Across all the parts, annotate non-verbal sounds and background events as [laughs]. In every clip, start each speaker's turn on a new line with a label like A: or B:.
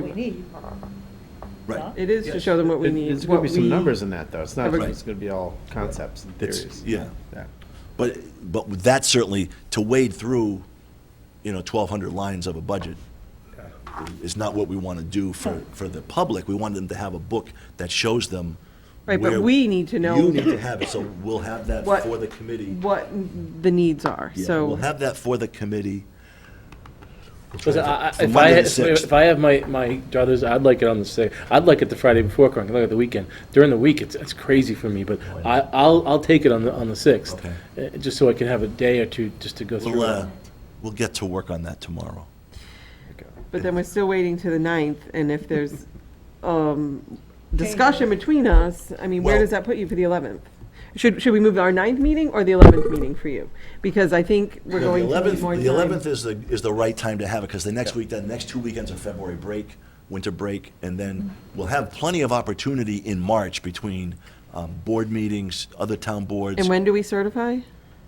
A: what we need.
B: Right.
A: Huh?
C: It is to show them what we
D: It-
C: need.
D: There's going
C: what
D: to be some
C: we-
D: numbers in that, though. It's not,
C: Have a-
D: just- it's going to be all concepts and
B: It's-
D: theories.
B: yeah.
D: Yeah.
B: But, but with that certainly, to wade through, you know, 1,200 lines of a budget is not what we want to do for, for the public. We want them to have a book that shows them.
C: Right, but
B: where-
C: we need to know
B: You need to have it, so we'll have that
C: What-
B: for the committee.
C: What the needs are,
B: Yeah,
C: so.
B: We'll have that for the committee.
E: Because I, I-
B: For
E: if I,
B: Monday the
E: had-
B: 6th.
E: if I have my, my druthers, I'd like it on the sixth, I'd like it the Friday before, 'cause I can look at the weekend. During the week, it's, it's crazy for me, but I, I'll, I'll take it on the, on the sixth.
B: Okay.
E: uh, Just so I can have a day or two just to go
B: We'll,
E: through
B: uh,
E: it.
B: we'll get to work on that tomorrow.
C: But then we're still waiting to the ninth, and if
B: [laughs]
C: there's um, discussion between us, I mean, where
B: Well-
C: does that put you for the eleventh? Should, should we move our ninth meeting or the eleventh meeting for you? Because I think we're
B: No, the
C: going to need
B: 11th
C: more
B: The eleventh
C: time.
B: is the, is the right time to have it, because the next week, the next two weekends are February break, winter break, and then we'll have plenty of opportunity in March between um, board meetings, other town boards.
C: And when do we certify?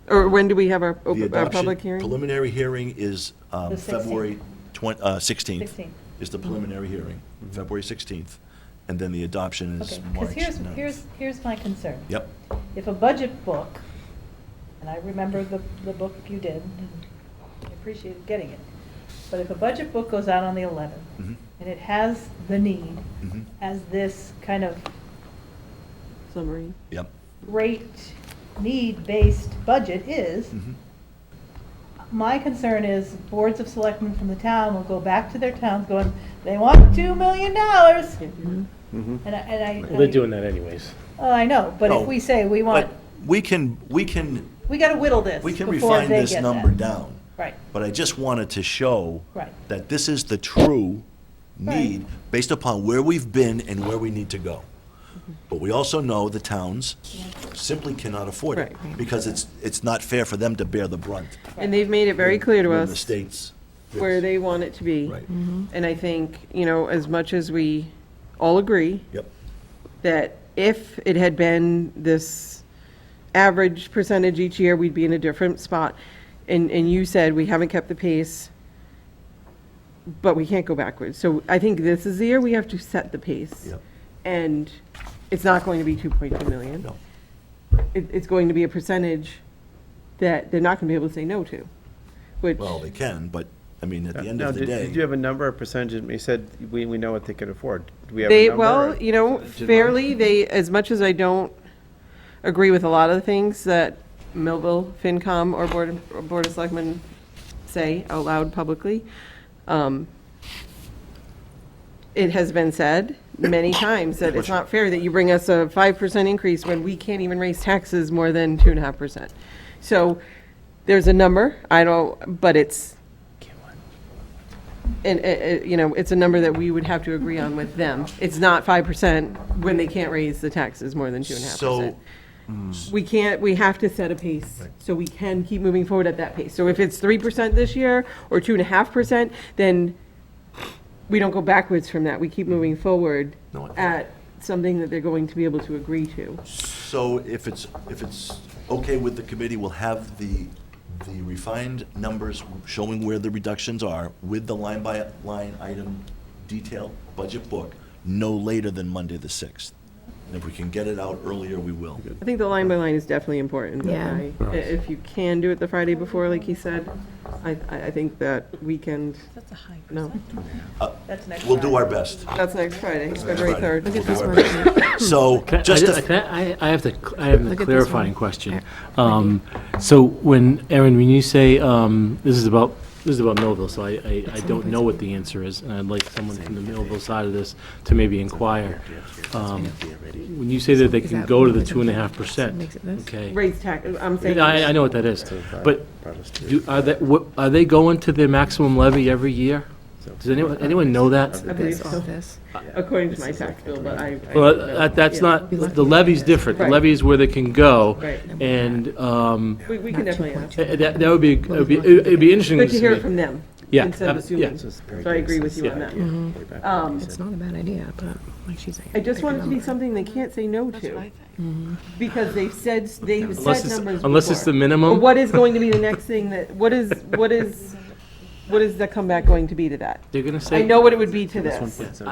C: Or when do we have our,
B: The
C: open- our
B: adoption-
C: public hearing?
B: Preliminary hearing is um,
A: The Mm-hmm. 16th.
B: February twen, uh, sixteenth,
A: 16th.
B: is the preliminary hearing,
C: Mm-hmm.
B: February sixteenth, and then the adoption is
A: Okay,
B: March
A: because here's,
B: 9th.
A: here's, here's my concern.
B: Yep,
A: If a budget book, and I remember the, the book you did, and I appreciated getting it, but if a budget book goes out on the 11th,
B: Mhm.
A: and it has the need
B: Mhm.
A: as this kind of
C: Summary.
B: yep.
A: great need-based budget is,
B: mhm.
A: My concern is boards of selectmen from the town will go back to their towns going, they want two million dollars.
B: Mm-hmm.
A: And I, and I.
E: Well, They're doing that anyways.
A: Oh, I know, but
B: No,
A: if we say we want,
B: But We can, we can,
A: we gotta whittle this
B: we can
A: before
B: refine
A: they
B: this
A: get
B: number
A: that.
B: down.
A: Right,
B: But I just wanted to show
A: Right.
B: that this is the true need
A: Right.
B: based upon where we've been and where we need to go.
C: Mm-hmm.
B: But we also know the towns simply cannot afford it
C: Right.
B: because it's, it's not fair for them to bear the brunt.
C: And they've made it very clear to
B: when The
C: us
B: states.
C: where they want it to be.
B: Right.
C: And I think, you know, as much as we all agree,
B: Yep.
C: that if it had been this average percentage each year, we'd be in a different spot. And, and you said we haven't kept the pace, but we can't go backwards. So I think this is the year we have to set the pace.
B: Yep.
C: And it's not going to be 2.2 million.
B: No.
C: It, it's going to be a percentage that they're not going to be able to say no to, which,
B: Well, they can, but, I mean, at the end
D: Now,
B: of the
D: did- Did you
B: day,
D: have a number or percentage? You said we, we know what they could afford. Do we have a
C: they,
D: number?
C: well,
D: or-
C: you know,
D: Did I-
C: fairly, they, as much as I don't agree with a lot of the things that Millville, FinCom, or Board, of- or Board of Selectmen say out loud publicly. um, It has been said many times that it's not fair that you bring us a five percent increase when we can't even raise taxes more than two and a half percent. So there's a number, I don't, but it's, and, uh, uh, you know, it's a number that we would have to agree on with them. It's not five percent when they can't raise the taxes more than two and a half percent.
B: so,
C: We can't, we have to set a pace, so we can keep moving forward at that pace. So if it's three percent this year, or two and a half percent, then we don't go backwards from that, we keep moving forward
B: No, I think-
C: at something that they're going to be able to agree to.
B: so if it's, if it's okay with the committee, we'll have the, the refined numbers showing where the reductions are with the line-by-line item detail budget book no later than Monday the 6th. And if we can get it out earlier, we will.
C: I think the line by line is definitely important, but
F: Yeah.
C: I- i- if you can do it the Friday before, like he said, I, I I think that weekend,
F: That's a high
C: no,
A: that's next.
B: We'll do our
A: Friday.
B: best.
C: that's next Friday, February
B: Friday.
C: third.
B: We'll do our best. So,
G: Can I- I
B: just
G: ju-
B: to,
G: can I, I- I have to, cl- I have a
F: Look at this
G: clarifying
F: one.
G: question. Um, So when, Aaron, when you say, um, this is about, this is about Millville, so I, I, I don't know what the answer is, and I'd like someone from the Millville side of this to maybe inquire. Um, When you say that they
F: Is
G: can
F: that
G: go to the
F: what it
G: two and a half
F: is?
G: percent,
F: Makes it this?
G: okay?
C: Raise tax, I'm saying.
G: I, I know what that is, but do, are they, what, are they going to their maximum levy every year? Does anyone, anyone know that?
C: I believe
F: This, all
C: so,
F: this.
C: according to my tax bill, but I. I
G: Well,
C: don't know.
G: that, that's
C: Yeah.
G: not,
F: Be lucky.
G: the levy's different. The
C: Right.
G: levy's where they can go.
C: Right.
G: And, um,
C: We, we can
F: Not
C: definitely ask.
F: 2.2.
G: eh, that, that would be, it'd be, it'd be interesting.
C: Good to hear
G: me.
C: it from them.
G: Yeah, uh,
C: Instead of
G: ab- yeah.
C: assuming. So I agree with you on that. Um,
F: It's not a bad idea, but like she's saying.
C: I just
F: pick a
C: want it to be
F: number.
C: something they can't say no to, because they've said, they've
G: Unless
C: said
G: it's,
C: numbers
G: unless it's the
C: before. But
G: minimum.
C: what is going to be the next thing that, what is, what is what is the comeback going to be to that?
H: They're gonna say.
C: I know what it would be to this.
D: That's one point seven.